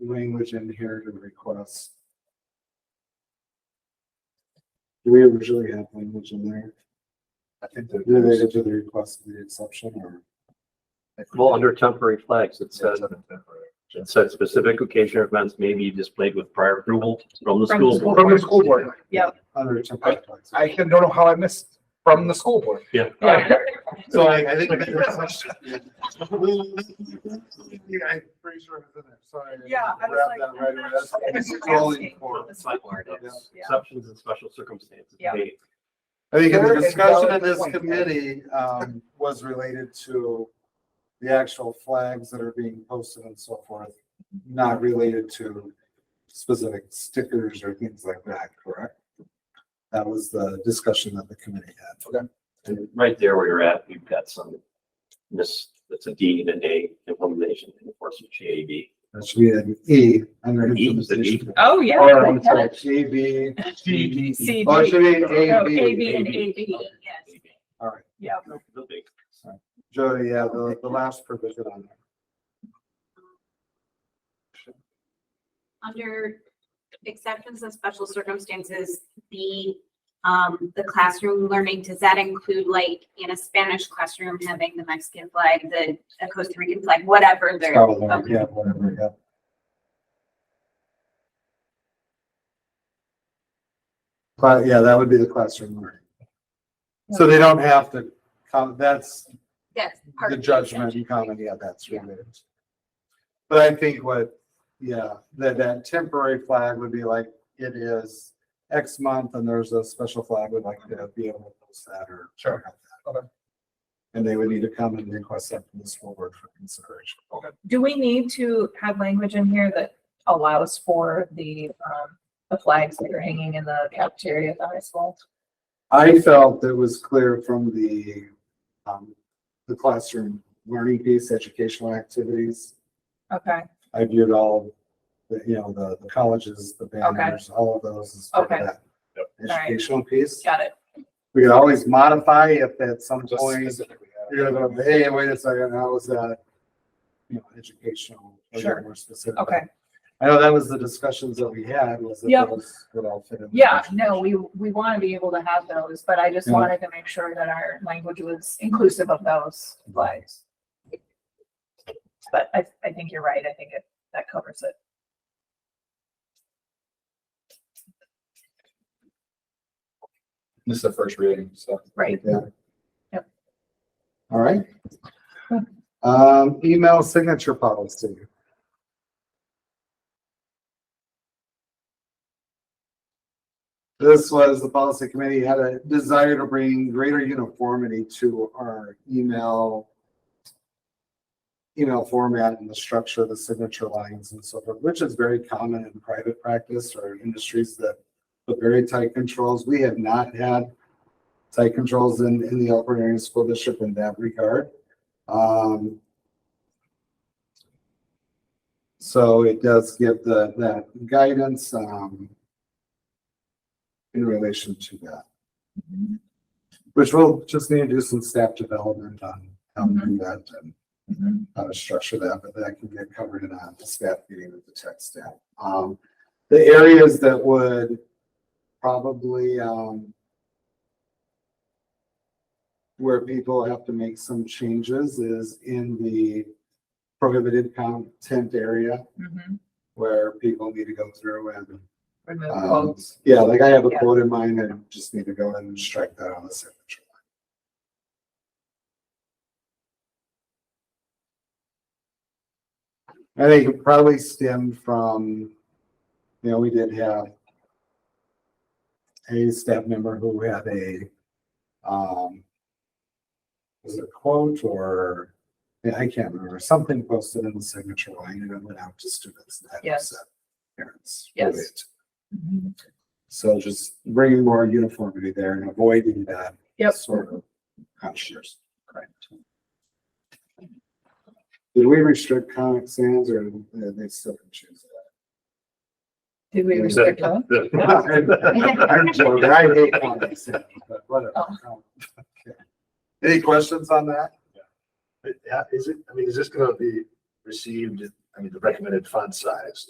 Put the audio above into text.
language in here to request. Do we originally have language in there? I think that related to the request of the exception or. Well, under temporary flags, it says, it said specific occasion or events may be displayed with prior approval from the From school the school board. From the school board. Under temporary flags. I can- don't know how I missed from the school board. Yeah. Oh, So I, I think. I'm pretty sure it's in there. Sorry. Yeah, I Grab was that like, I'm right away. not That's what it's sure. Asking calling for. for the select board. Yeah. Exceptions and special circumstances. Yeah. may- I think the Very discussion in valid this point. committee, um, was related to the actual flags that are being posted and so forth, not related to specific stickers or things like that, correct? That was the discussion that the committee had. Okay. And right there where you're at, we've got some miss, that's a D and an A implementation enforcement G A B. That should be an E under E, the E. implementation. Oh, yeah. Or, I I'm get sorry, it. G B, GD. CD. or it should be A Oh, B. AB and AB, yes, All right, yeah. The big. Jody, yeah, the, the last provision on there. under exceptions and special circumstances, the, um, the classroom learning, does that include like in a Spanish classroom having the Mexican flag, the a Costa Rican flag, whatever It's there? got a little- Okay. Yeah, whatever, yeah. But yeah, that would be the classroom learning. So they don't have to, come. that's That's part the of judgment exception. and comment, yeah, that's Yeah. related. But I think what, yeah, that, that temporary flag would be like, it is X month and there's a special flag would like to be able to post that or. Sure. Okay. And they would need to come and request that from the school board for consideration. Do we need to have language in here that allows for the, um, the flags that are hanging in the cafeteria at the high school? I felt it was clear from the, um, the classroom learning piece, educational activities. Okay, I viewed all, the, you know, the, the colleges, the banners, all of those as part of Okay. that All right. educational piece. got it. We could always modify if at some Just point, specifically, yeah. you're gonna, hey, wait a second, how was that? You know, educational, a Sure. little more specific. Okay. I know that was the discussions that we had, was that Yep. those would all fit in. the Yeah, education. no, we, we want to be able to have those, but I just Yeah. wanted to make sure that our language was inclusive of those flags. But I, I think you're right. I think it, that covers it. This is the first reading, so. Right. All right. Um, email signature policy. This was the policy committee had a desire to bring greater uniformity to our email email format and the structure of the signature lines and so forth, which is very common in private practice or industries that put very tight controls. We have not had site controls in, in the Elkhorn Area School District in that regard. Um, so it does give the, that guidance, um, in relation to that, Mm-hmm. which we'll just need to do some staff development on, how to do that and Mm-hmm. how to structure that, but that can get covered in a staff meeting with the tech staff. Um, the areas that would probably, um, where people have to make some changes is in the prohibited content area Mhm. where people need to go through and, Remove Um, quotes. yeah, like I have a Yeah. quote in mind and just need to go in and strike that on the signature. I think it probably stemmed from, you know, we did have a staff member who had a, um, was it a quote or, yeah, I can't remember, something posted in the signature line and it went out to students. and that Yes. upset Parents. Yes. with it. Mhm. So just bringing more uniformity there and avoiding that Yep. sort of conscious. Correct. Did we restrict Comic Sans or uh, they still can choose Did we restrict those? that? I'm joking, I hate Comic Sans, but whatever. Okay. Any questions on that? uh, But, yeah, is it, I mean, is this gonna be received, I mean, the recommended font size?